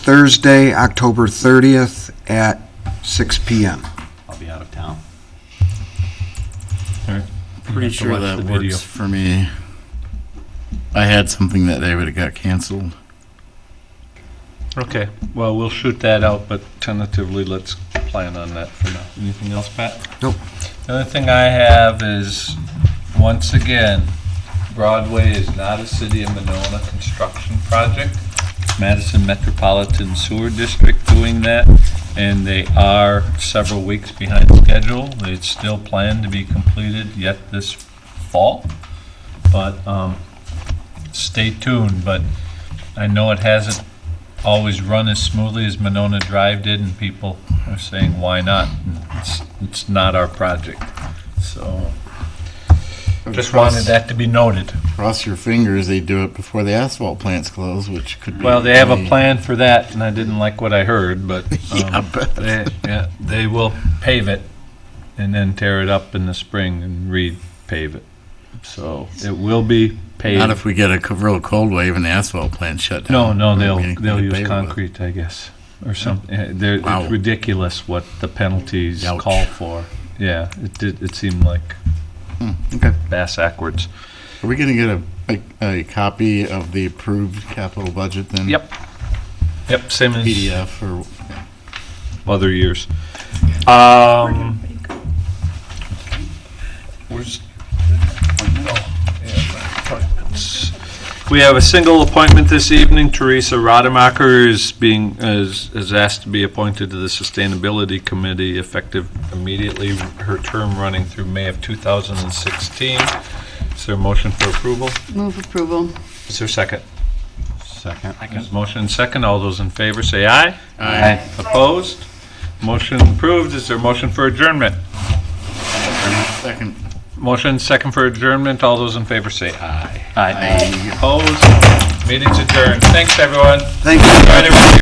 Thursday, October 30th at 6 PM. I'll be out of town. Pretty have to sure watch that the works video. for me. I had something that day, but it got canceled. Okay, well, we'll shoot that out, but tentatively, let's plan on that for now. Anything else, Pat? Nope. The other thing I have is, once again, Broadway is not a City of Monona construction project. Madison Metropolitan Sewer District doing that, and they are several weeks behind schedule. It's still planned to be completed yet this fall, but um, stay tuned. But I know it hasn't always run as smoothly as Monona Drive did, and people are saying, why not? And It's, it's not our project, so just wanted that to be noted. Cross your fingers, they do it before the asphalt plants close, which could be. Well, they have a plan for that, and I didn't like what I heard, but Yeah, um, but- they, yeah, they will pave it and then tear it up in the spring and repave it. So it will be Not paved. if we get a co- real cold wave and the asphalt plant shut No, down. no, We're they'll, gonna they'll use pave it with- concrete, I guess, or something. They're, Wow. it's ridiculous what the penalties Ouch. call for. Yeah, it did, it seemed like Hmm, Okay. bass backwards. Are we gonna get a, a, a copy of the approved capital budget then? Yep. Yep, same as PDF or, other years. Um. Where's? We have a single appointment this evening. Teresa Rademacher is being, is is asked to be appointed to the Sustainability Committee effective immediately, her term running through May of 2016. Is there a motion for approval? Move approval. Is there a second? Second. There's motion and second. All those in favor say aye. Aye. Opposed? Motion approved. Is there a motion for adjournment? second. Motion second for adjournment. All those in favor say aye. Aye. Opposed? Meeting's adjourned. Thanks, everyone. Thank you. Right, everyone.